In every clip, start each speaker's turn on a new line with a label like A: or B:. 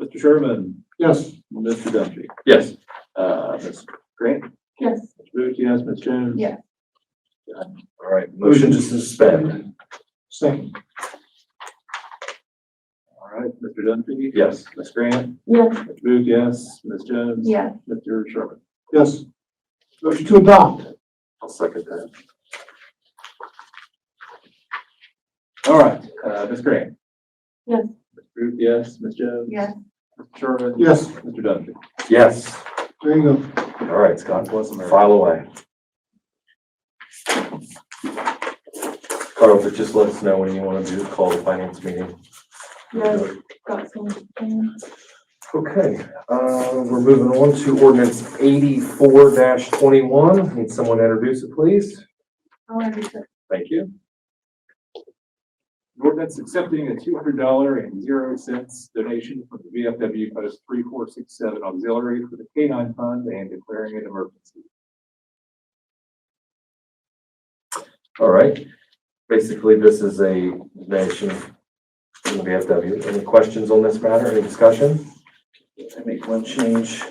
A: Mr. Sherman?
B: Yes.
A: Mr. Duffy?
C: Yes.
A: Uh, Ms. Grant?
D: Yes.
A: Ms. Booth, yes. Ms. Jones?
D: Yes.
C: All right, motion to suspend.
B: Second.
A: All right, Mr. Duffy?
C: Yes.
A: Ms. Grant?
D: Yes.
A: Ms. Booth, yes. Ms. Jones?
D: Yes.
A: Mr. Sherman?
B: Yes. Motion to adopt.
A: I'll second that. All right, uh, Ms. Grant?
D: Yes.
A: Ms. Booth, yes. Ms. Jones?
D: Yes.
A: Mr. Sherman?
B: Yes,
A: Mr. Duffy?
C: Yes.
B: there you go.
C: All right, Scott,
A: God bless America.
C: file away. Carl, but just let us know when you want to do, call the finance meeting.
D: Yes. Got some.
C: Okay, uh, we're moving on to ordinance eighty-four twenty-one. Need someone to introduce it, please?
D: I'll understand.
A: Thank you. An Ordinance accepting a two hundred dollar and zero cents donation from the VFW Post three four six seven Auxiliary for the K nine fund and declaring an emergency.
C: All right. Basically, this is a nation from the VFW. Any questions on this matter? Any discussion?
E: I make one change.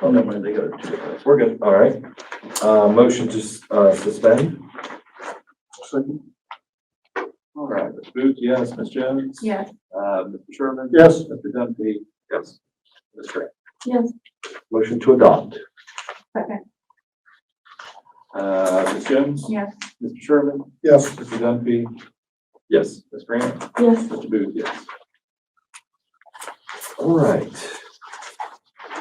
E: Oh, never mind, they got it.
C: We're good. All right. Uh, motion to, s- uh, suspend?
B: Second.
A: All right, Ms. Booth, yes, Ms. Jones?
D: Yes.
A: Uh, Mr. Sherman?
B: Yes.
A: Mr. Dumpy?
C: Yes.
A: Ms. Grant?
D: Yes.
C: Motion to adopt?
D: Second.
A: Uh, Ms. Jones?
D: Yes.
A: Mr. Sherman?
B: Yes.
A: Mr. Dumpy?
C: Yes.
A: Ms. Grant?
D: Yes.
A: Mr. Booth, yes.
C: All right.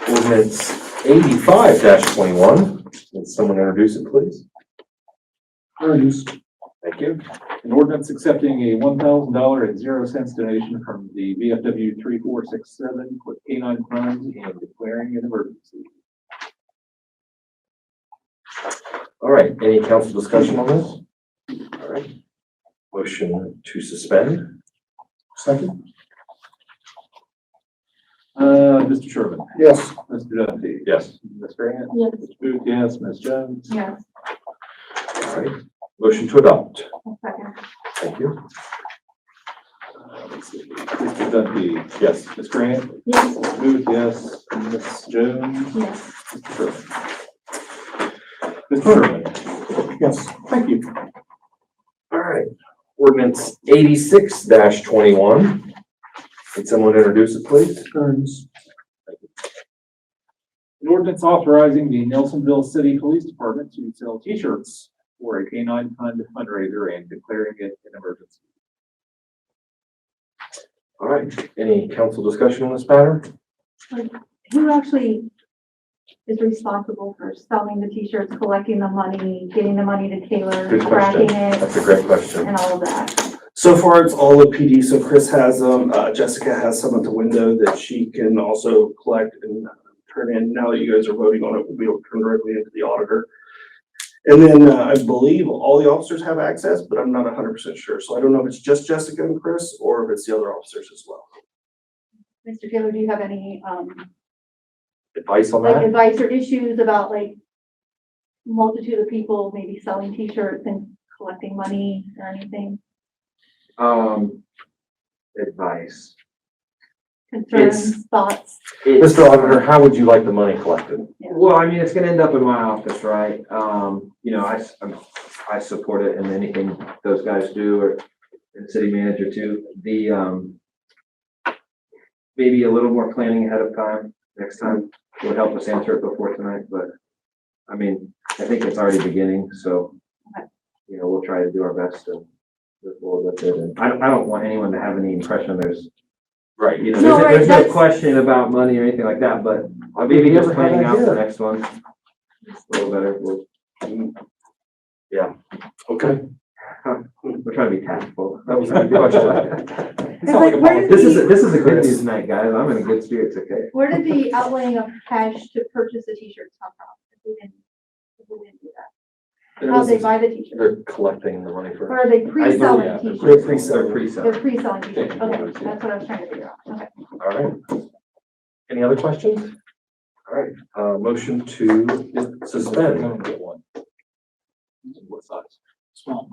C: Ordinance eighty-five twenty-one. Can someone introduce it, please?
B: There it is.
C: Thank you.
A: An ordinance accepting a one thousand dollar and zero cents donation from the VFW three four six seven with K nine funds and declaring an emergency.
C: All right, any council discussion on this? All right. Motion to suspend?
B: Second.
A: Uh, Mr. Sherman?
B: Yes.
A: Mr. Duffy?
C: Yes.
A: Ms. Grant?
D: Yes.
A: Mr. Booth, yes. Ms. Jones?
D: Yes.
C: All right. Motion to adopt?
D: Second.
C: Thank you.
A: Uh, let's see. Mr. Duffy?
C: Yes.
A: Ms. Grant?
D: Yes.
A: Mr. Booth, yes. Ms. Jones?
D: Yes.
A: Mr. Sherman? Mr. Sherman?
B: Yes.
A: Thank you.
C: All right. Ordinance eighty-six twenty-one. Can someone introduce it, please?
B: There it is.
A: An ordinance authorizing the Nelsonville City Police Department to sell T-shirts for a K nine fund fundraiser and declaring it an emergency.
C: All right, any council discussion on this matter?
D: Who actually is responsible for selling the t-shirts, collecting the money, getting the money to Taylor,
C: Good question.
D: tracking it,
C: That's a great question.
D: and all of that?
E: So far, it's all the PD, so Chris has them, uh, Jessica has some at the window that she can also collect and uh, turn in. Now that you guys are voting on it, we'll be able to turn directly into the auditor. And then, uh, I believe all the officers have access, but I'm not hundred percent sure, so I don't know if it's just Jessica and Chris, or if it's the other officers as well.
D: Mr. Taylor, do you have any, um,
C: Advice on
D: like
C: that?
D: advice or issues about like multitude of people maybe selling t-shirts and collecting money or anything?
F: Um, advice.
D: Concerns, thoughts?
F: It's-
C: Mr. Auditor, how would you like the money collected?
F: Well, I mean, it's gonna end up in my office, right? Um, you know, I, s- I'm- I support it and anything those guys do or and city manager too, the, um, maybe a little more planning ahead of time, next time would help us answer it before tonight, but I mean, I think it's already beginning, so,
D: Okay.
F: you know, we'll try to do our best to move forward with it. And I, don't- I don't want anyone to have any impression there's
C: Right.
F: You know,
D: No, right,
F: there's, there's no
D: that's-
F: question about money or anything like that, but
C: I'd
F: maybe just planning out the next one. A little better, we'll,
C: Okay.
F: we're trying to be tactful.
C: That was a good question.
D: It's like, where did
F: This is,
D: the-
F: a- this is a good
C: Chris.
F: news night, guys, I'm in good spirits, okay?
D: Where did the outlaying of cash to purchase the t-shirts come from? If we didn't, if we didn't do that, how they buy the t-shirts?
C: They're collecting the money for.
D: Or are they
C: yeah,
D: pre-selling
C: they're
F: They're
D: t-shirts?
F: pre-sell, they're pre-sell.
D: They're pre-selling t-shirts,
C: Yeah.
D: okay, that's what I was trying to figure out, okay.
C: All right. Any other questions? All right, uh, motion to suspend.
A: Come and get one. What size? Small.